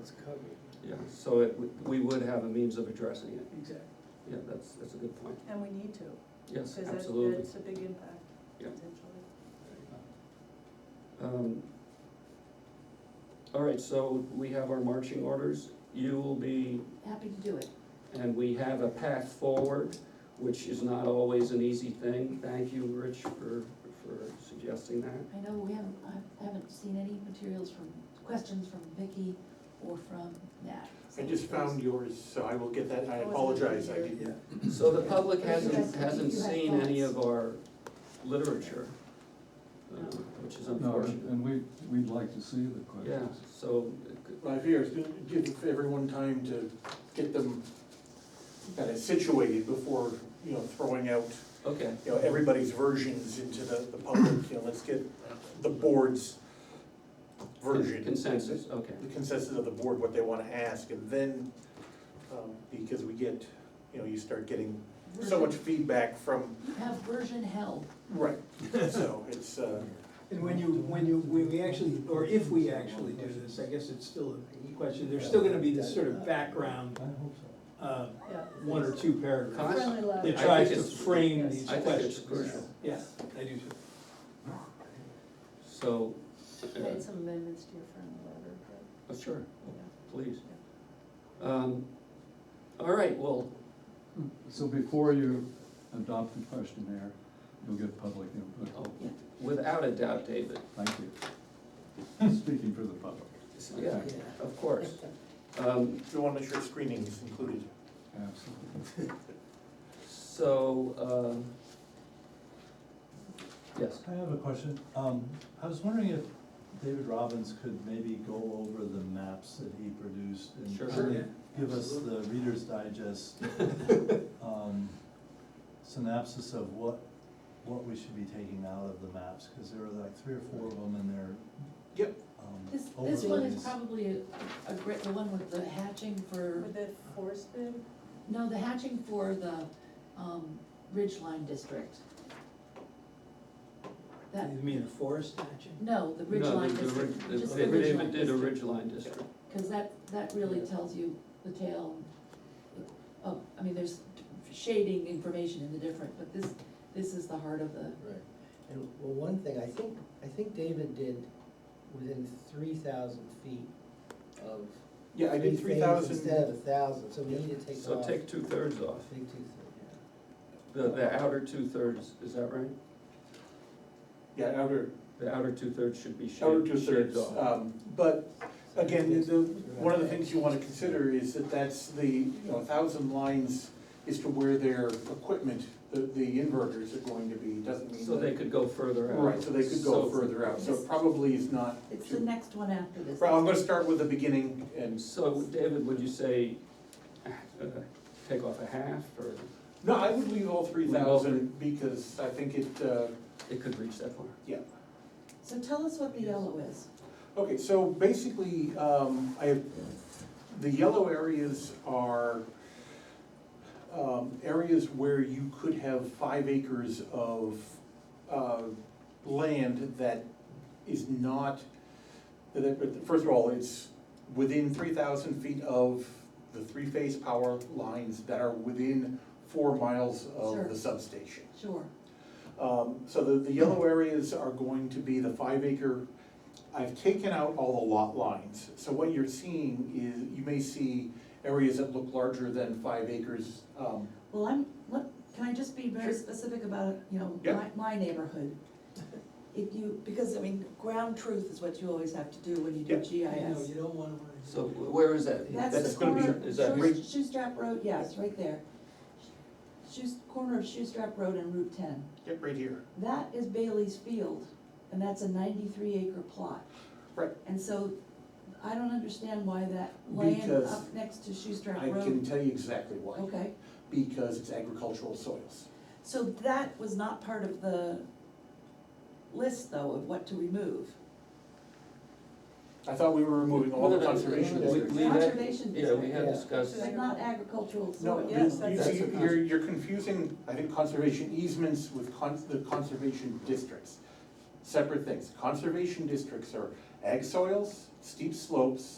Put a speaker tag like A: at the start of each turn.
A: it's covered.
B: Yeah, so it, we would have a means of addressing it.
A: Exactly.
B: Yeah, that's, that's a good point.
C: And we need to,
B: Yes,
C: because that's,
B: absolutely.
C: that's a big impact,
B: Yeah.
C: potentially.
B: Um, All right, so we have our marching orders. You will be
D: Happy to do it.
B: And we have a path forward, which is not always an easy thing. Thank you, Rich, for, for suggesting that.
D: I know we haven't, I haven't seen any materials from, questions from Vicky or from Nat.
E: I just found yours, so I will get that, I
C: Oh, it's
E: apologize, I
C: here.
E: didn't.
B: So the public
D: Yes,
B: hasn't,
D: yes,
B: hasn't
D: you have
B: seen any
D: thoughts.
B: of our literature, uh,
C: No.
B: which is
F: No,
B: unfortunate.
F: and and we, we'd like to see the
B: Yeah,
F: questions.
B: so,
E: My fear is to give everyone time to get them kind of situated before, you know, throwing out,
B: okay,
E: you know, everybody's versions into the, the public, you know, let's get the board's version.
B: consensus, okay.
E: The consensus of the board, what they wanna ask, and then, um, because we get, you know, you start getting so much feedback from,
D: You have version hell.
E: right, so it's, uh,
A: And when you, when you, when we actually, or if we actually do this, I guess it's still a question, there's still gonna be this sort of background,
F: I hope so.
A: uh,
C: Yeah.
A: one or two
B: Con-
A: paragraphs
C: Friendly letter.
A: that
B: I
A: tries
B: think
A: to
B: it's-
A: frame
C: Yes.
A: these
B: I
A: questions.
B: think it's crucial.
A: Yeah, I do too.
B: So, uh,
C: Made some amendments to your friendly letter, but,
B: oh, sure, oh,
C: yeah.
B: please. Um, All right, well,
F: So before you adopt the questionnaire, you'll get public input.
B: oh, without a doubt, David,
F: Thank you. Speaking for the public.
B: yeah, of course. Um,
E: we wanna make sure screening is included.
F: Absolutely.
B: So, um, yes,
G: I have a question. Um, I was wondering if David Robbins could maybe go over the maps that he produced and
B: Sure.
G: kind of
A: Yeah.
G: give us the Reader's Digest, um, synopsis of what, what we should be taking out of the maps, because there were like three or four of them and they're.
E: Yep.
G: um,
D: This, this one is
G: overlays.
D: probably a, a great, the one with the hatching for,
C: Would that force them?
D: no, the hatching for the, um, Ridge Line District. That,
A: You mean the forest action?
D: no, the Ridge
B: No,
D: Line
B: the- the
D: District,
B: ri- the-
D: just the
B: David-
D: Ridge Line
B: David did a
D: District.
B: ridge line district,
D: Cause that, that really tells you the tale of, I mean, there's shading information in the different, but this, this is the heart of the,
H: Right, and well, one thing, I think, I think David did within three thousand feet of.
E: Yeah, I did
H: three
E: three
H: things
E: thousand.
H: Instead of a thousand, so we need to take
B: so
H: off.
B: take two-thirds off,
H: Take two, yeah.
B: the, the outer two-thirds, is that right?
E: Yeah, outer,
B: The outer two-thirds should be
E: outer
B: shaved, shaved
E: two-thirds,
B: off.
E: um, but again, the, the- one of the things you wanna consider is that that's the, you know, thousand lines is to where their equipment, the, the inverters are going to be, doesn't mean
B: So they
E: that-
B: could go further out.
E: Right, so they could go
B: So-
E: further out, so it probably is not.
D: it's the
E: too-
D: next one after this.
E: Well, I'm gonna start with the beginning and,
B: So, David, would you say, uh, take off a half, or
E: no, I would leave all three
B: Leave all three.
E: thousand because I think it, uh,
B: it could reach that far?
E: yeah.
D: So tell us what the yellow is.
E: Okay, so basically, um, I have, the yellow areas are, um, areas where you could have five acres of, uh, land that is not, that- that- first of all, it's within three thousand feet of the three-phase power lines that are within four miles
D: Sure.
E: of the substation.
D: Sure.
E: Um, so the, the yellow areas are going to be the five acre. I've taken out all the lot lines, so what you're seeing is, you may see areas that look larger than five acres. Um,
D: Well, I'm, let, can I just be very
E: Sure.
D: specific about, you know,
E: Yeah.
D: my, my neighborhood? If you, because I mean, ground truth is what you always have to do when you do
E: Yeah.
A: No,
D: GIS.
A: you don't wanna.
B: So where is that?
D: That's
E: That's
D: the
E: gonna be-
D: corner,
B: is that-
D: Shoe- Shoestrap Road, yes, right there. Shoes, corner of Shoestrap Road and Route ten.
E: yep, right here.
D: That is Bailey's Field, and that's a ninety-three acre plot.
E: Right.
D: And so I don't understand why that land
E: Because
D: up next to Shoestrap
E: I
D: Road.
E: can tell you exactly why,
D: Okay,
E: because it's agricultural soils.
D: so that was not part of the list though of what to remove.
E: I thought we were removing all
B: No,
E: the
B: no, no,
E: conservation
B: we-
E: districts.
B: we had-
D: Conservation
B: Yeah, we had
H: Yeah.
B: discussed,
D: It's not agricultural
E: No,
D: soil.
E: you-
C: yes,
E: you
C: that's-
E: see,
B: That's a
E: you're, you're confusing, I think, conservation easements with con, the conservation districts. Separate things. Conservation districts are ag soils, steep slopes,